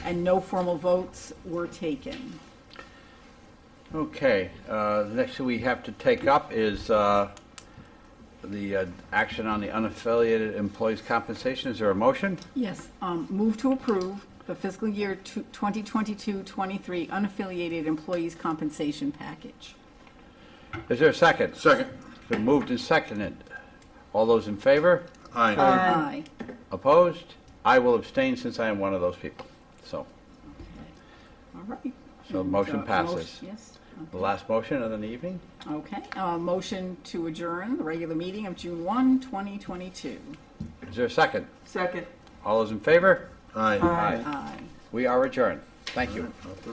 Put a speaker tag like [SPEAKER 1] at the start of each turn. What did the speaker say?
[SPEAKER 1] and no formal votes were taken.
[SPEAKER 2] Okay, uh, the next thing we have to take up is uh, the uh, action on the unaffiliated employees' compensation. Is there a motion?
[SPEAKER 1] Yes, um, move to approve the fiscal year two- 2022-23 unaffiliated employees' compensation package.
[SPEAKER 2] Is there a second?
[SPEAKER 3] Second.
[SPEAKER 2] It's been moved and seconded. All those in favor?
[SPEAKER 3] Aye.
[SPEAKER 1] Aye.
[SPEAKER 2] Opposed? I will abstain since I am one of those people. So,
[SPEAKER 1] All right.
[SPEAKER 2] So the motion
[SPEAKER 1] And, uh,
[SPEAKER 2] passes.
[SPEAKER 1] motion- Yes.
[SPEAKER 2] the last motion of the evening?
[SPEAKER 1] Okay, uh, motion to adjourn the regular meeting of June 1, 2022.
[SPEAKER 2] Is there a second?
[SPEAKER 4] Second.
[SPEAKER 2] All those in favor?
[SPEAKER 3] Aye.
[SPEAKER 2] Aye.
[SPEAKER 1] Aye.
[SPEAKER 2] We are adjourned. Thank you.